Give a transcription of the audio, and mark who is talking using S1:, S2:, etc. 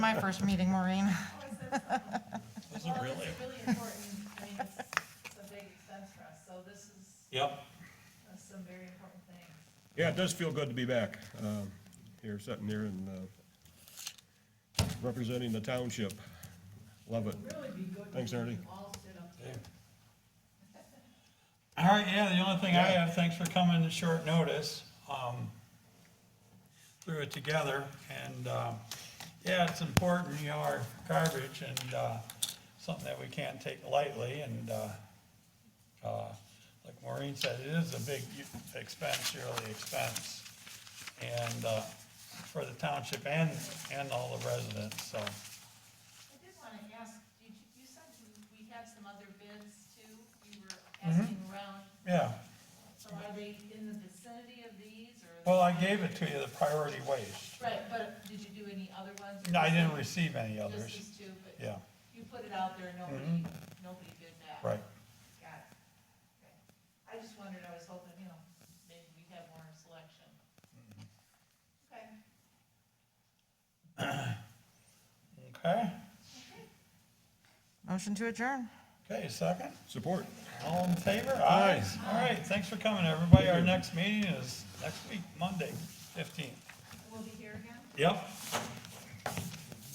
S1: my first meeting, Maureen.
S2: Was it really?
S3: It's really important, I mean, it's it's a big expense for us, so this is
S2: Yep.
S3: uh, some very important things.
S4: Yeah, it does feel good to be back, um, here, sitting here and, uh, representing the township. Love it.
S3: Really be good if
S4: Thanks, Ernie.
S3: we all stood up there.
S2: All right, yeah, the only thing I have, thanks for coming at short notice. Um, Threw it together and, um, yeah, it's important, you know, our garbage and uh, something that we can't take lightly and uh, uh, like Maureen said, it is a big expense, yearly expense. And uh, for the township and, and all the residents, so,
S3: I did want to ask, did you, you said you- we had some other bids too, you were
S2: Mm-hmm.
S3: asking around,
S2: yeah.
S3: so are they in the vicinity of these or?
S2: Well, I gave it to you, the priority waste.
S3: Right, but did you do any other ones? or
S2: No, I
S3: just-
S2: didn't receive any
S3: Just
S2: others, Mm-hmm.
S3: these two, but
S2: yeah,
S3: you put it out there, nobody, nobody bid back.
S2: right.
S3: Got it. Okay. I just wondered, I was hoping, you know, maybe we'd have more selection. Okay.
S2: Okay,
S1: Motion to adjourn.
S2: okay, second,
S4: Support.
S2: all in favor?
S4: Aye.
S2: All right, thanks for coming, everybody, our next meeting is next week, Monday, fifteenth.
S3: We'll be here again?
S2: Yep,